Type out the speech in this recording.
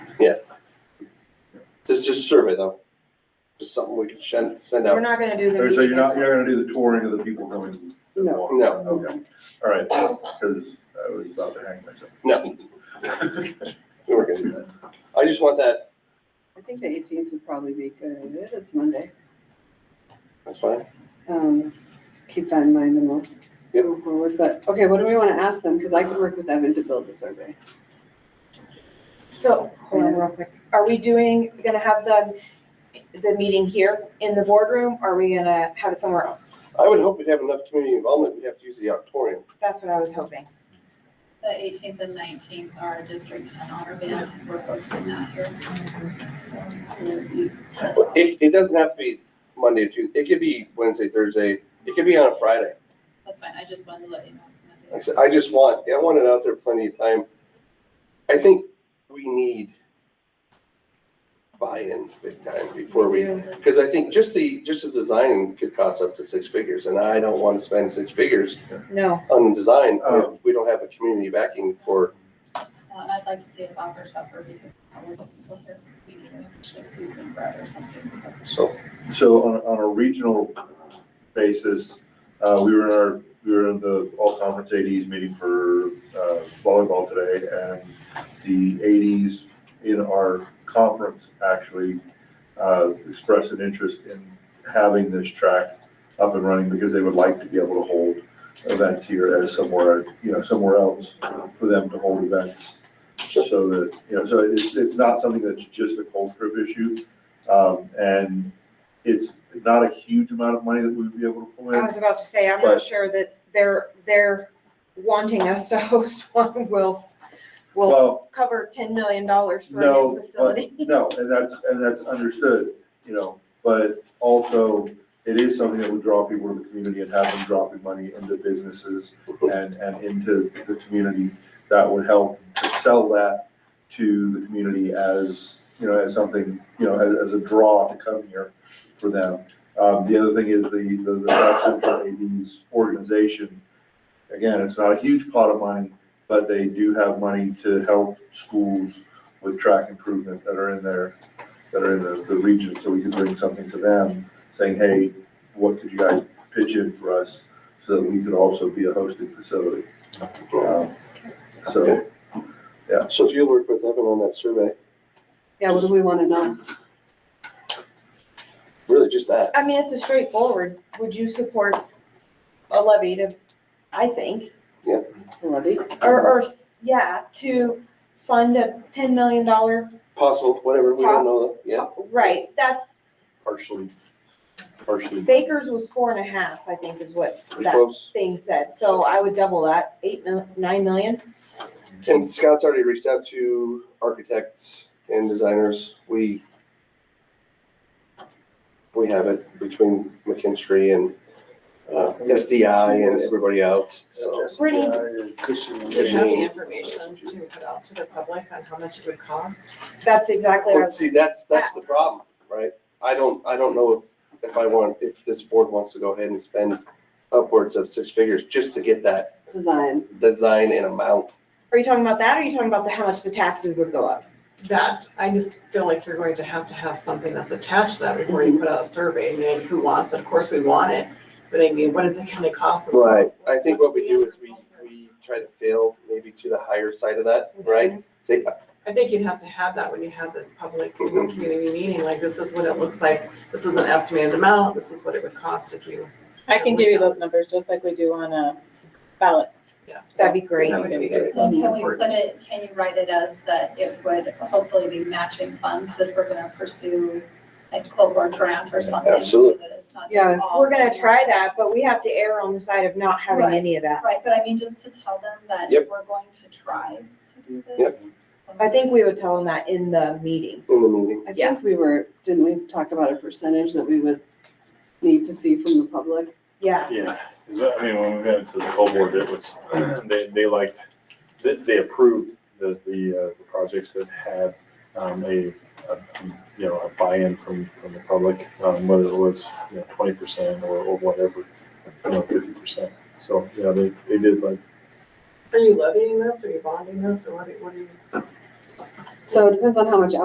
It's just survey though. Just something we can send, send We're out. not gonna do the So you're meeting. not, until- you're not gonna do the touring of the people going? to No. walk? No. Okay, all right, because I was about to hang myself. No, we weren't gonna do that. I just want that, I think the eighteenth would probably be good. It's Monday. that's fine. Um, keep that in mind and we'll Yep. go forward. But, okay, what do we want to ask them? Because I could work with Evan to build the survey. So, hold on real quick. Are we doing, gonna have the, the meeting here in the boardroom? Or are we gonna have it somewhere else? I would hope we'd have enough community involvement. We'd have to use the auditorium. That's what I was hoping. The eighteenth and nineteenth are District Ten Honor Band, we're posting that here. So, But it, it doesn't have to be Monday or Tuesday. It could be Wednesday, Thursday. It could be on a Friday. That's fine, I just wanted to let you know. Like I said, I just want, I want it out there plenty of time. I think we need buy-in big time before we Uh, Because I think just the, just the designing could cost up to six figures, and I don't want to spend six figures No, on design Oh. if we don't have a community backing for, Uh, And I'd like to see us offer supper because I was looking for her, you know, just soup and bread or something. That's- so. So on, a- on a regional basis, uh, we were in our, we were in the all conference ADs meeting for, uh, volleyball today and the ADs in our conference actually, uh, expressed an interest in having this track up and running because they would like to be able to hold events here as somewhere, you know, somewhere else for them to hold events. So that, you know, so it's, it's not something that's just a Colstrip issue. Um, and it's not a huge amount of money that we'd be able to pull I in. was about to say, I'm But- not sure that they're, they're wanting us to host one will, will Well, cover ten million dollars for a no, new but- facility. no, and that's, and that's understood, you know, but also it is something that would draw people to the community and have them dropping money into businesses and, and into the community. That would help to sell that to the community as, you know, as something, you know, as, as a draw to come here for them. Um, the other thing is the, the, the South Central AD's organization, again, it's not a huge pot of money, but they do have money to help schools with track improvement that are in there, that are in the, the region, so we could bring something to them, saying, hey, what could you guys pitch in for us, so that we could also be a hosting facility. Um, So, So if you'll work with Evan on that survey, Yeah, what do we want to know? really just that. I mean, it's a straightforward, would you support a levy to, I think, Levy? Or, or, s- yeah, to fund a ten million dollar, Possible, whatever, we don't know, yeah, right, that's, partially, partially, Baker's was four and a half, I think is what pretty that close. thing said, so I would double that, eight mil, nine million? And Scott's already reached out to architects and designers. We we have it between McKinstry and uh, SDI and everybody else, so. Brittany, Do you have the Yeah. information to put out to the public on how much it would cost? that's exactly what I Well, was, see, that's, that's the problem, right? I don't, I don't know if, if I want, if this board wants to go ahead and spend upwards of six figures just to get that Design. design and amount. are you talking about that, or are you talking about the, how much the taxes would go up? That, I just feel like you're going to have to have something that's attached to that before you put out a survey, and then who wants it, of course, we want it, but I mean, what is it gonna cost? us? I think what we do is we, we try to fail maybe to the higher side of that, right? Say, uh, I think you'd have to have that when you have this public you know, Mhm. community meeting, like, this is what it looks like, this is an estimated amount, this is what it would cost if you. I can give you those numbers, just like we do on a ballot. That'd be great. That would be good. So can we put it, can you write it as that it would hopefully be matching funds that we're gonna pursue, like Clover grant or something? so Absolutely. that it's not just Yeah, all We're gonna try money. that, but we have to err on the side of not having Right. any of that. Right, but I mean, just to tell them that Yep. we're going to try to do this. Yep. So- I think we would tell them that in the meeting. in the meeting, I Yeah. think we were, didn't we talk about a percentage that we would need to see from the public? Yeah, Yeah, 'cause, I mean, when we went to the full board, it was, they, they liked, they, they approved the, the, uh, the projects that had, um, a, a, you know, a buy-in from, from the public, um, whether it was, you know, twenty percent or, or whatever, you know, fifty percent. So, yeah, they, they did like, Are you levying this, are you bonding this, or what, are- what are you? So it depends on how much